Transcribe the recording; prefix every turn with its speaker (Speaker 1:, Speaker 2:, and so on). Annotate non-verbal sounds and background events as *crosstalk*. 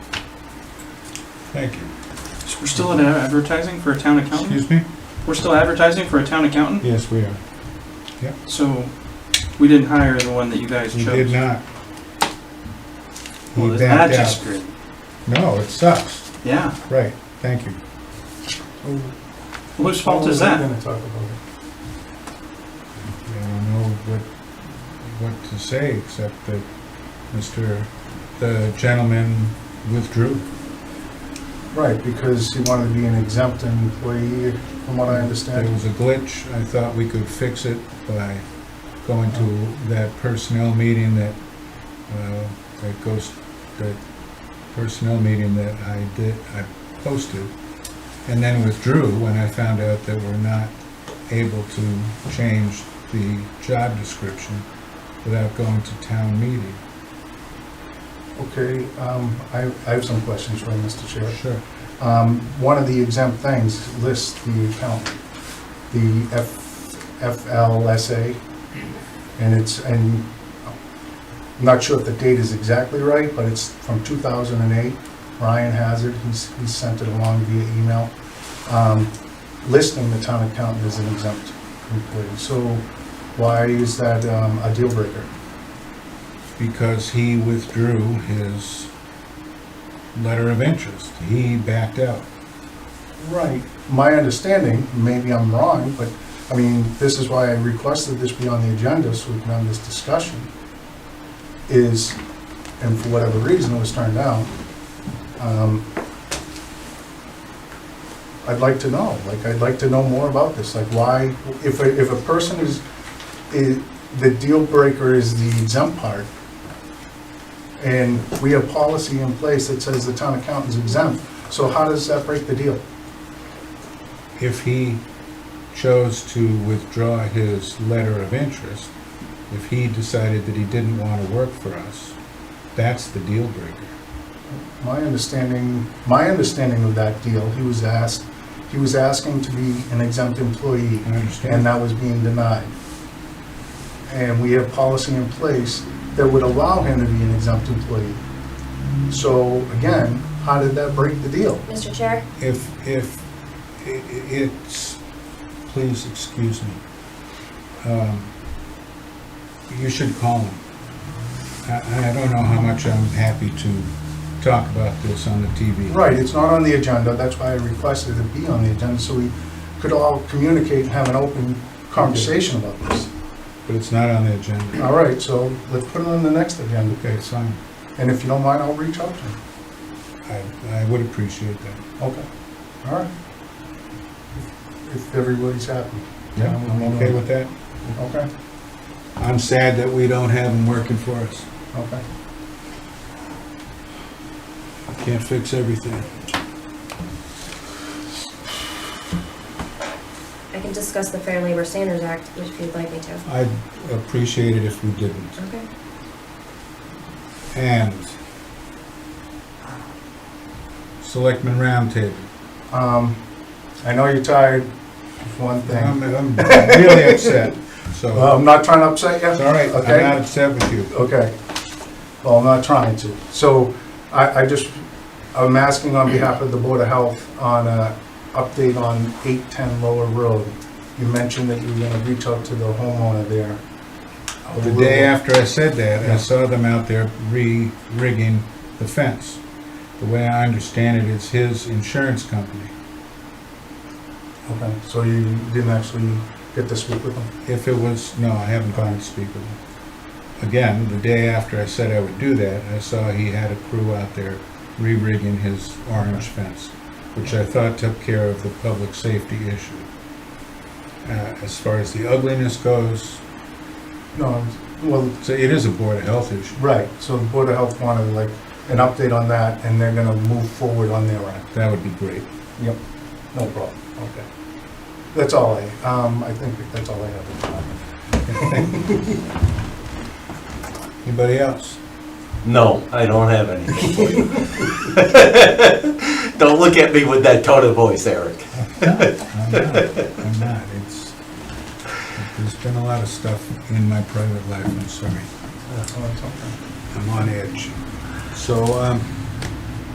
Speaker 1: Thank you.
Speaker 2: So we're still ad- advertising for a town accountant?
Speaker 1: Excuse me?
Speaker 2: We're still advertising for a town accountant?
Speaker 1: Yes, we are.
Speaker 2: So we didn't hire the one that you guys
Speaker 1: We
Speaker 2: chose?
Speaker 1: did not.
Speaker 2: Well,
Speaker 1: We
Speaker 2: then
Speaker 1: backed
Speaker 2: that's
Speaker 1: out.
Speaker 2: just great.
Speaker 1: No, it sucks.
Speaker 2: Yeah.
Speaker 1: Right, thank you.
Speaker 2: Well, Whose fault is that?
Speaker 1: I don't know what, what to say, except that Mr., the gentleman withdrew.
Speaker 3: Right, because he wanted to be an exempt employee, from what I
Speaker 1: There
Speaker 3: understand.
Speaker 1: was a glitch. I thought we could fix it by going to that personnel meeting that, uh, that goes, that personnel meeting that I did, I posted, and then withdrew when I found out that we're not able to change the job description without going to town meeting.
Speaker 3: Okay, um, I I have some questions for you, Mr. Chair.
Speaker 1: Sure.
Speaker 3: Um, One of the exempt things lists the account, the F- FLSA, and it's, and I'm not sure if the date is exactly right, but it's from 2008. Ryan Hazard, he's he sent it along via email, um, listing the town accountant as an exempt employee. So why is that um, a deal breaker?
Speaker 1: because he withdrew his letter of interest. He backed out.
Speaker 3: Right. My understanding, maybe I'm wrong, but, I mean, this is why I requested this be on the agenda, so we can have this discussion, is, and for whatever reason, it was turned down. um, I'd like to know, like, I'd like to know more about this, like, why, if, a- if a person is, is, the deal breaker is the exempt part, and we have policy in place that says the town accountant's exempt, so how does that break the deal?
Speaker 1: If he chose to withdraw his letter of interest, if he decided that he didn't want to work for us, that's the deal breaker.
Speaker 3: My understanding, my understanding of that deal, he was asked, he was asking to be an exempt employee,
Speaker 1: I understand.
Speaker 3: and that was being denied. And we have policy in place that would allow him to be an exempt employee. So again, how did that break the deal?
Speaker 4: Mr. Chair,
Speaker 1: If, if, i- i- it's, please excuse me. Um, You should call him. I, I don't know how much I'm happy to talk about this on the TV.
Speaker 3: Right, it's not on the agenda, that's why I requested it be on the agenda, so we could all communicate and have an open conversation about this.
Speaker 1: But it's not on the agenda.
Speaker 3: All right, so let's put it on the next agenda,
Speaker 1: Okay, fine.
Speaker 3: and if you don't mind, I'll reach out to him.
Speaker 1: I, I would appreciate that.
Speaker 3: Okay, all right. If everybody's happy.
Speaker 1: Yeah, I'm okay with that.
Speaker 3: Okay,
Speaker 1: I'm sad that we don't have them working for us.
Speaker 3: okay.
Speaker 1: Can't fix everything.
Speaker 4: I can discuss the Fair Labor Standards Act if you'd like me to.
Speaker 1: I'd appreciate it if we didn't.
Speaker 4: Okay.
Speaker 1: And Selectmen Roundtable.
Speaker 3: Um, I know you're tired, one
Speaker 1: I'm,
Speaker 3: thing.
Speaker 1: I'm really upset, so
Speaker 3: *laughs* Well, I'm not trying to upset you.
Speaker 1: it's all right. I'm
Speaker 3: Okay.
Speaker 1: not upset with you.
Speaker 3: Okay. Well, I'm not trying to. So I, I just, I'm asking on behalf of the Board of Health on a update on 810 Lower Road. You mentioned that you were gonna reach out to the homeowner there.
Speaker 1: The day after I said that, I saw them out there re-rigging the fence. The way I understand it is his insurance company.
Speaker 3: Okay, so you didn't actually get to speak with them?
Speaker 1: If it was, no, I haven't gone to speak with him. Again, the day after I said I would do that, I saw he had a crew out there re-rigging his orange fence, which I thought took care of the public safety issue. Uh, as far as the ugliness goes,
Speaker 3: No, well,
Speaker 1: so it is a Board of Health issue.
Speaker 3: Right, so the Board of Health wanted like an update on that, and they're gonna move forward on their end.
Speaker 1: That would be great.
Speaker 3: Yep. No problem, okay. That's all I, um, I think that's all I have.
Speaker 1: Anybody else?
Speaker 5: No, I don't have anything for you. *laughs* Don't look at me with that tone of voice, Eric.
Speaker 1: No, I'm not, I'm not, it's, there's been a lot of stuff in my private life, I'm sorry.
Speaker 3: That's all, it's okay.
Speaker 1: I'm on edge. So, um,